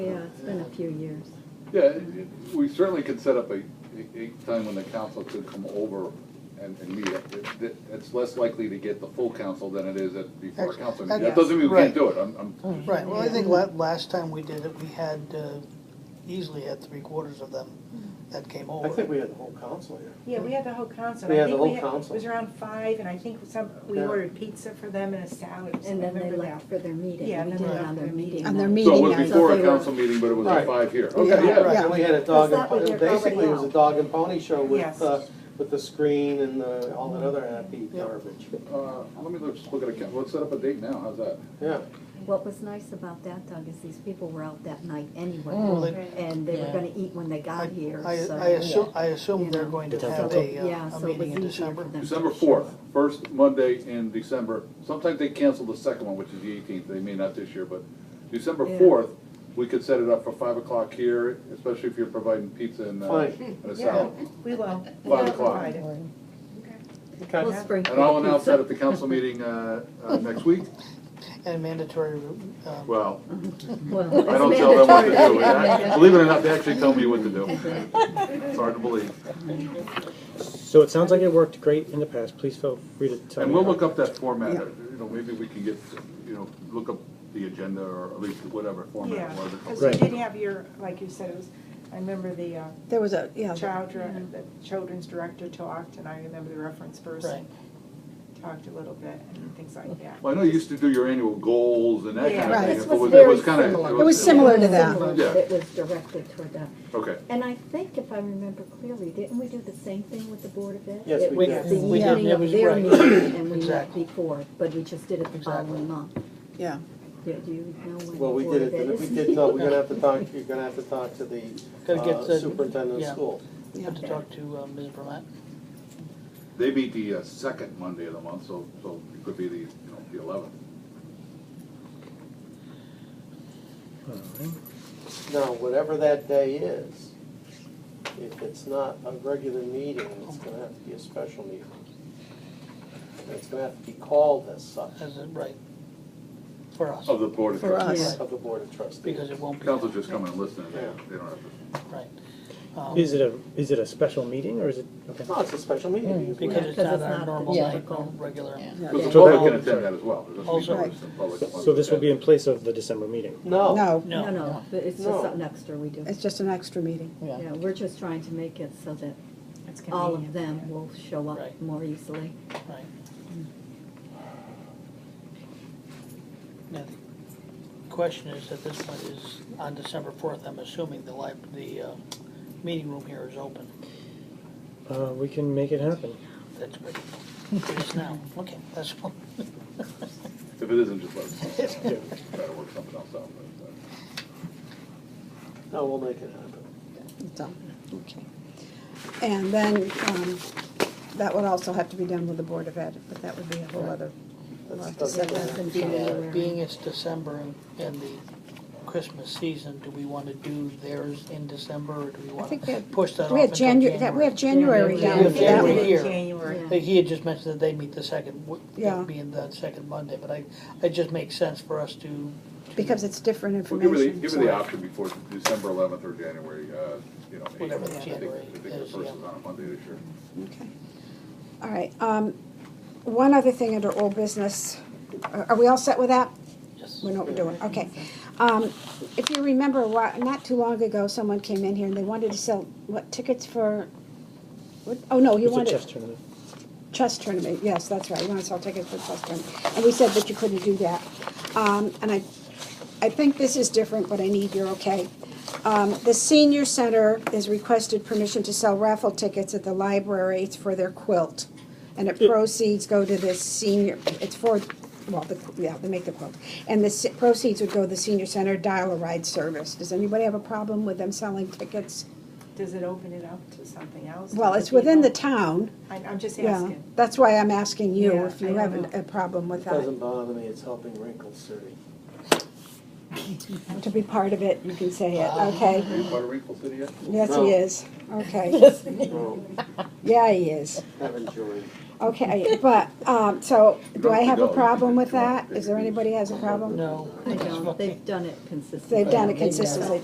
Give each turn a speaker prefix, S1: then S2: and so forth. S1: Yeah, it's been a few years.
S2: Yeah, it- it- we certainly could set up a, a- a time when the council could come over and, and meet. It- it- It's less likely to get the full council than it is at before a council meeting. That doesn't mean we can't do it, I'm, I'm,
S3: Right, well, I think la- last time we did it, we had, uh, easily had three quarters of them
S1: Hmm.
S3: that came
S4: I think
S3: over.
S4: we had the whole council here.
S5: Yeah, we had the whole council.
S4: We
S5: I
S4: had the
S5: think
S4: whole council.
S5: It was around five, and I think some, we
S4: Yeah.
S5: ordered pizza for them and a salad. or
S1: And then they
S5: something.
S1: left for their meeting.
S5: Yeah,
S1: We
S5: and
S1: did
S5: then
S1: it
S5: they
S1: on
S5: left
S1: their
S5: for
S1: meeting.
S6: On their
S1: night.
S2: so it
S6: meeting
S2: was
S6: night.
S2: before
S1: So
S2: a
S1: they were-
S2: council meeting, but it was at
S4: Right.
S2: five here. Okay, yeah.
S4: Right, and we had a dog, and
S1: That's not what
S4: po-
S1: they're
S4: basically it was a
S1: calling
S4: dog and pony show with,
S5: Yes.
S4: uh, with the screen and the, all that other happy garbage.
S2: Uh, Let me look- just look at a, ca- let's set up a date now, how's that?
S4: Yeah,
S1: What was nice about that, Doug, is these people were out that night
S6: Mm.
S3: Well,
S1: anyway,
S3: they-
S1: and they were gonna eat when they
S3: I,
S1: got here,
S3: I
S1: so.
S3: I assume, I assume they're going to have a,
S1: Yeah,
S3: uh, a
S1: so it was
S3: meeting in
S1: easier for
S3: December.
S1: them.
S2: December fourth, first Monday in December. Sometimes they cancel the second one, which is the eighteenth, they may not this year, but December
S1: Yeah.
S2: fourth, we could set it up for five o'clock here, especially if you're providing pizza and, uh,
S4: Fine.
S2: and a
S5: Yeah,
S2: salad.
S5: we will.
S2: Five o'clock.
S4: okay.
S1: We'll sprinkle
S2: And I'll announce
S1: pizza.
S2: that at the council meeting uh, uh, next week.
S3: And mandatory, um,
S2: Well,
S1: Well,
S2: I don't
S1: it's
S2: tell them what to
S1: mandatory.
S2: do. They- Believe it or not, they actually tell me what to do. It's hard to believe.
S7: So it sounds like it worked great in the past, please feel free to tell me.
S2: And we'll
S7: how-
S2: look up that format, you know, maybe we can get, you know, look up the agenda or at least whatever format
S5: Yeah,
S2: it was.
S5: because you
S7: Right.
S5: did have your, like you said, it was, I remember the uh,
S6: There was a, yeah.
S5: child, dir- the children's director talked, and I remember the reference person talked a little bit and things like that.
S2: Well, I know you used to do your annual goals and that kind of
S5: Yeah.
S2: thing.
S6: Right.
S2: but
S1: This was
S2: it
S1: very
S2: was kind of-
S1: similar.
S6: It was similar to that.
S1: Similar,
S2: Yeah.
S1: but It was directed toward that.
S2: Okay,
S1: And I think if I remember clearly, didn't we do the same thing with the Board of Ed?
S4: Yes, we
S1: It
S4: did.
S1: was the
S6: We did.
S1: evening
S3: That
S1: of
S3: was
S1: their
S3: right.
S1: meeting and we met
S3: Exactly.
S1: before, but we just did it the following month.
S6: Yeah.
S1: Do do you know when?
S4: Well, we
S1: the Board
S4: did
S1: of
S4: it,
S1: Ed
S4: we
S1: is?
S4: did, tell- we're gonna have to talk, you're gonna have to talk to the
S3: Gotta get
S4: uh,
S3: the-
S4: superintendent of
S3: yeah.
S4: school.
S6: Yeah.
S3: have to talk to uh, Ms. Vermette.
S2: they meet the uh, second Monday of the month, so, so it could be the, you know, the eleventh.
S7: All right.
S4: Now, whatever that day is, if it's not a regular meeting, it's gonna have to be a special meeting. It's gonna have to be called as such
S3: Is it right? For us,
S2: Of the Board of
S6: For
S2: Trustees.
S6: us.
S4: of the board of trustees.
S3: because it won't be.
S2: Council's just come and listen, and they- they don't have to.
S3: Right. Um,
S7: Is it a, is it a special meeting, or is it, okay,
S4: No, it's a special meeting.
S3: Because it's
S1: Because
S3: not
S1: it's not
S3: our
S1: a
S3: normal,
S1: typical-
S3: like, regular.
S2: Because the public
S7: So that-
S2: can attend that as well. There's a
S3: Also-
S2: meeting for the public.
S7: so this will be in place of the December meeting?
S4: No.
S6: No,
S1: No, no, but it's just
S4: No.
S1: something extra we do.
S6: it's just an extra meeting.
S1: Yeah, we're just trying to make it so that
S5: It's
S1: all of
S5: convenient.
S1: them will show up
S3: Right.
S1: more easily.
S3: Right. Now, the question is, at this point, is on December fourth, I'm assuming the lib, the, uh, meeting room here is open.
S7: Uh, we can make it happen.
S3: That's good. It is now, okay, that's, all.
S2: If it isn't, just let us know. Try to work something else out. but, uh,
S4: No, we'll make it happen.
S6: It's all- okay. And then, um, that would also have to be done with the Board of Ed, but that would be a whole other, we'll have to
S4: That's-
S6: set
S4: that's-
S6: that.
S3: being, being it's December and- and the Christmas season, do we wanna do theirs in December, or do we
S6: I
S3: wanna
S6: think we have,
S3: push that off
S6: we had
S3: until January?
S6: January, that, we have January
S1: Yeah,
S6: down
S3: we
S6: for that
S3: January
S6: one.
S3: here.
S5: January.
S1: Yeah.
S3: Like, He had just mentioned that they meet the second, w-
S6: Yeah.
S3: being the second Monday, but I, it just makes sense for us to.
S6: Because it's different
S2: Well, give her the,
S6: information.
S2: give her the
S6: so-
S2: option before December eleventh or January, uh, you know. eighth.
S3: Whatever
S2: I think-
S3: January
S2: I think the
S3: is,
S2: first
S3: yeah.
S2: is on a Monday this year.
S6: Okay. All right, um, one other thing under old business, uh, are, are we all set with that?
S3: Yes.
S6: We know what we're doing, okay. Um, if you remember, why, not too long ago, someone came in here and they wanted to sell, what, tickets for, what, oh, no, you
S7: It's a
S6: wanted.
S7: chess tournament.
S6: Chess tournament, yes, that's right, you wanna sell tickets for chess tournament, and we said that you couldn't do that. Um, and I, I think this is different, but I need your okay. Um, the senior center is requested permission to sell raffle tickets at the library, it's for their quilt. And it proceeds go to the senior, it's for, well, the, yeah, they make the quilt. And the s- proceeds would go to the senior center dial-a-ride service. Does anybody have a problem with them selling tickets?
S5: Does it open it up to something else?
S6: Well,
S5: Other
S6: it's within the
S5: people?
S6: town.
S5: I- I'm just
S6: Yeah,
S5: asking.
S6: that's why I'm asking you
S5: Yeah,
S6: if
S5: I
S6: you
S5: don't
S6: have
S5: know.
S6: a- a problem with
S4: It doesn't
S6: that.
S4: bother me, it's helping Wrinkle City.
S6: To be part of it, you can say it, okay?
S2: Are you part of Wrinkle City yet?
S6: Yes,
S4: No.
S6: he is, okay.
S4: No,
S6: Yeah, he is.
S4: haven't joined.
S6: Okay, but, um, so, do I have a
S2: No,
S6: problem with
S2: come on,
S6: that? Is there anybody has a problem?
S3: No.
S1: I don't, they've done it consistently.
S6: They've done it consistently.